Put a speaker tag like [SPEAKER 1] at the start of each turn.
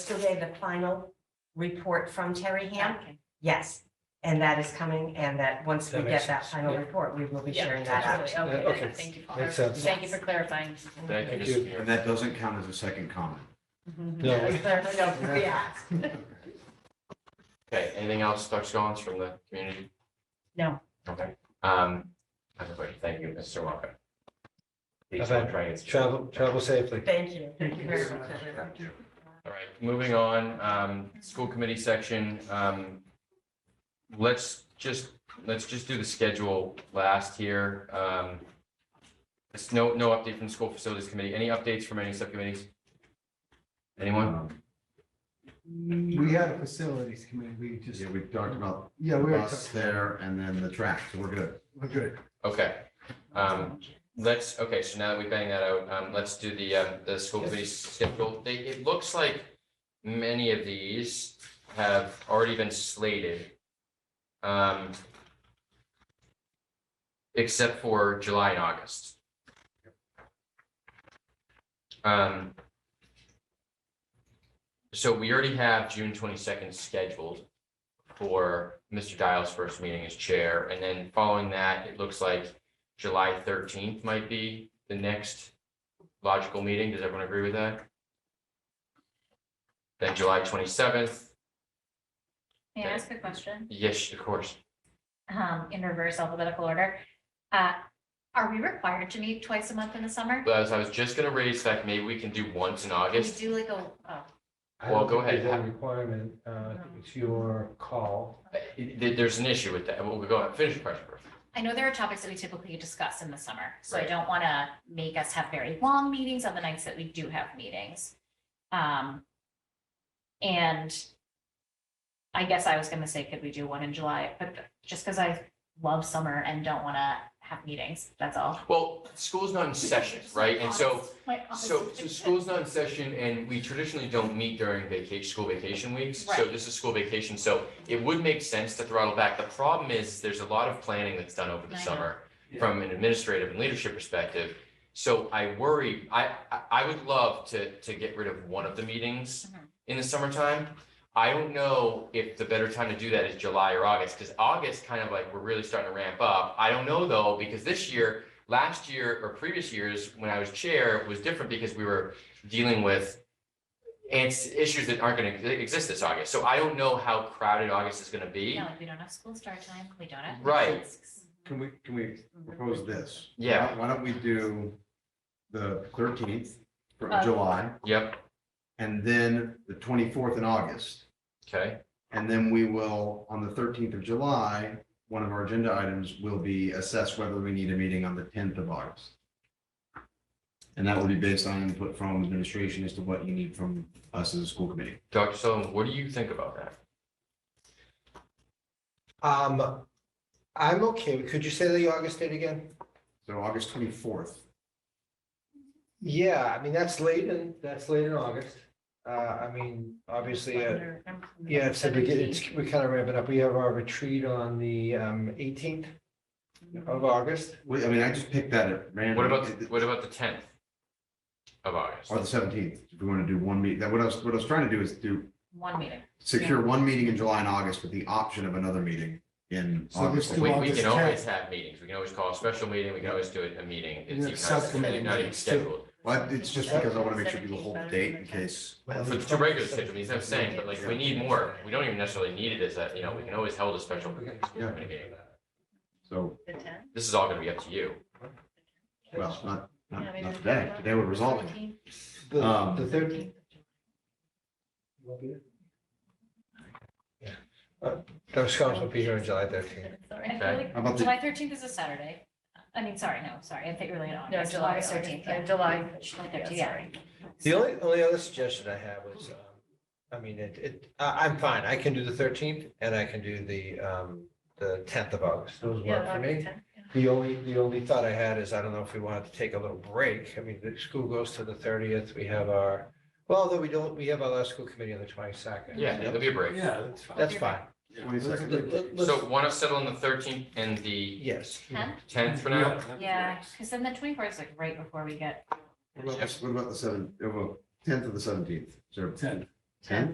[SPEAKER 1] still gave the final report from Terry Ham.
[SPEAKER 2] Okay.
[SPEAKER 1] Yes, and that is coming and that once we
[SPEAKER 3] That
[SPEAKER 1] get
[SPEAKER 3] makes
[SPEAKER 1] that
[SPEAKER 3] sense.
[SPEAKER 1] final
[SPEAKER 3] Yeah.
[SPEAKER 1] report, we will be
[SPEAKER 2] Yeah,
[SPEAKER 1] sharing that out.
[SPEAKER 2] absolutely. Okay,
[SPEAKER 3] Okay.
[SPEAKER 2] thank you. for
[SPEAKER 3] Makes
[SPEAKER 2] clarifying.
[SPEAKER 3] sense.
[SPEAKER 2] Thank you for clarifying.
[SPEAKER 4] Thank you,
[SPEAKER 3] Thank
[SPEAKER 4] Mr.
[SPEAKER 3] you.
[SPEAKER 4] Mayor.
[SPEAKER 5] And that doesn't count as a second comment.
[SPEAKER 2] Mm-hmm.
[SPEAKER 3] No.
[SPEAKER 1] No, yeah.
[SPEAKER 4] Okay, anything else, Dr. Scollins, from the community?
[SPEAKER 2] No.
[SPEAKER 4] Okay, um, everybody, thank you, Mr. Walker. Please
[SPEAKER 3] Bye-bye.
[SPEAKER 4] don't try and-
[SPEAKER 3] Travel, travel safely.
[SPEAKER 1] Thank you. Thank you very much.
[SPEAKER 4] All right, moving on, um, school committee section, um, let's just, let's just do the schedule last here. Um, it's no, no update from the school facilities committee. Any updates from any subcommittees? Anyone?
[SPEAKER 5] Um,
[SPEAKER 6] We had a facilities committee, we just,
[SPEAKER 5] Yeah, we talked about
[SPEAKER 6] yeah,
[SPEAKER 5] the
[SPEAKER 6] we were,
[SPEAKER 5] bus there and then the track, so we're good.
[SPEAKER 6] we're good.
[SPEAKER 4] Okay, um, let's, okay, so now that we bang that out, um, let's do the, um, the school committee schedule. They, it looks like many of these have already been slated. Um, except for July and August. Um, so we already have June twenty-second scheduled for Mr. Dial's first meeting as chair, and then following that, it looks like July thirteenth might be the next logical meeting. Does everyone agree with that? Then July twenty-seventh,
[SPEAKER 2] May I ask a question?
[SPEAKER 4] yes, of course.
[SPEAKER 2] Um, in reverse alphabetical order. Uh, are we required to meet twice a month in the summer?
[SPEAKER 4] But as I was just gonna raise that, maybe we can do once in
[SPEAKER 2] We
[SPEAKER 4] August.
[SPEAKER 2] do like a, oh,
[SPEAKER 3] I don't
[SPEAKER 4] Well, go
[SPEAKER 3] think there's
[SPEAKER 4] ahead.
[SPEAKER 3] any Requirement, uh, I think it's your call.
[SPEAKER 4] Uh, there- there's an issue with that. Well, we go ahead, finish your question first.
[SPEAKER 2] I know there are topics that we typically discuss in the summer, so I
[SPEAKER 4] Right.
[SPEAKER 2] don't want to make us have very long meetings on the nights that we do have meetings. Um, and I guess I was going to say, could we do one in July? But just because I love summer and don't want to have meetings, that's all.
[SPEAKER 4] Well, school's not in session, right? And so,
[SPEAKER 2] My office-
[SPEAKER 4] so, so school's not in session and we traditionally don't meet during vacation, school vacation weeks. So
[SPEAKER 2] Right.
[SPEAKER 4] this is school vacation, so it would make sense to throttle back. The problem is, there's a lot of planning that's done over the
[SPEAKER 2] I know.
[SPEAKER 4] summer from an administrative and leadership perspective. So I worry, I, I, I would love to, to get rid of one of the meetings
[SPEAKER 2] Mhm.
[SPEAKER 4] in the summertime. I don't know if the better time to do that is July or August, because August kind of like, we're really starting to ramp up. I don't know though, because this year, last year or previous years, when I was chair, was different because we were dealing with and issues that aren't going to exist this August. So I don't know how crowded August is going to be.
[SPEAKER 2] Yeah, like we don't have school start time, we don't have.
[SPEAKER 4] Right.
[SPEAKER 2] desks.
[SPEAKER 5] Can we, can we propose this?
[SPEAKER 4] Yeah.
[SPEAKER 5] Why don't we do the thirteenth for
[SPEAKER 2] Uh,
[SPEAKER 5] July
[SPEAKER 4] Yep,
[SPEAKER 5] and then the twenty-fourth in August?
[SPEAKER 4] okay,
[SPEAKER 5] And then we will, on the thirteenth of July, one of our agenda items will be assess whether we need a meeting on the tenth of August. And that will be based on input from administration as to what you need from us as a school committee.
[SPEAKER 4] Dr. Sullivan, what do you think about that?
[SPEAKER 3] Um, I'm okay. Could you say the August date again?
[SPEAKER 5] So August twenty-fourth,
[SPEAKER 3] Yeah, I mean, that's late in, that's late in August. Uh, I mean, obviously, uh,
[SPEAKER 2] Under- under
[SPEAKER 3] yeah, it's, the begin-
[SPEAKER 2] 17.
[SPEAKER 3] it's, we're kind of ramping up. We have our retreat on the, um, eighteenth of August.
[SPEAKER 5] Wait, I mean, I just picked that at random.
[SPEAKER 4] What about, the- what about the tenth of August?
[SPEAKER 5] Or the seventeenth, if we want to do one meeting, that what I was, what I was trying to do is do,
[SPEAKER 2] One meeting.
[SPEAKER 5] secure one meeting in July and August with the option of another meeting in
[SPEAKER 6] So this
[SPEAKER 5] August.
[SPEAKER 6] do
[SPEAKER 4] We,
[SPEAKER 6] all
[SPEAKER 4] we
[SPEAKER 6] this
[SPEAKER 4] can always
[SPEAKER 6] task.
[SPEAKER 4] have meetings, we can always call a special meeting, we can always do a meeting,
[SPEAKER 6] And
[SPEAKER 4] it's
[SPEAKER 6] it's
[SPEAKER 4] even not-
[SPEAKER 6] subcommittee
[SPEAKER 4] not even
[SPEAKER 6] meetings too.
[SPEAKER 4] scheduled.
[SPEAKER 5] Well, it's just because I want to make sure people hold the date in case,
[SPEAKER 4] For two regular scheduled meetings, I'm saying, but like, if we need more, we don't even necessarily need it as that, you know, we can always hold a special
[SPEAKER 3] We can-
[SPEAKER 4] committee meeting.
[SPEAKER 5] so,
[SPEAKER 2] The tenth?
[SPEAKER 4] This is all gonna be up to you.
[SPEAKER 5] well, not, not, not today, today we're resolving. it.
[SPEAKER 3] The,
[SPEAKER 5] Um,
[SPEAKER 3] the thirteenth. Yeah, Uh, Those scholars will be here on July thirteenth.
[SPEAKER 5] How about the-
[SPEAKER 2] July thirteenth is a Saturday. I mean, sorry, no, sorry, I think we're late on.
[SPEAKER 7] No,
[SPEAKER 2] August,
[SPEAKER 7] July,
[SPEAKER 2] August 13th, yeah.
[SPEAKER 7] uh, July.
[SPEAKER 2] July 13th, yeah.
[SPEAKER 3] The only, only other suggestion I have was, um, I mean, it, it, I, I'm fine. I can do the thirteenth and I can do the, um, the tenth of August. Those work for me. The only, the only thought I had is, I don't know if we wanted to take a little break. I mean, the school goes to the thirtieth. We have our, well, though we don't, we have our last school committee on the twenty-second.
[SPEAKER 4] Yeah, there'll be a break.
[SPEAKER 6] Yeah, that's fine.
[SPEAKER 3] That's fine.
[SPEAKER 5] 22nd.
[SPEAKER 3] Let- let- let's-
[SPEAKER 4] So wanna settle on the thirteenth and the
[SPEAKER 3] Yes.
[SPEAKER 2] Tenth?
[SPEAKER 4] tenth for now?
[SPEAKER 2] Yeah, because then the twenty-fourth is like right before we get,
[SPEAKER 5] What about, the- what about the seventh, tenth of the seventeenth? Sure.
[SPEAKER 6] Ten.
[SPEAKER 5] Ten?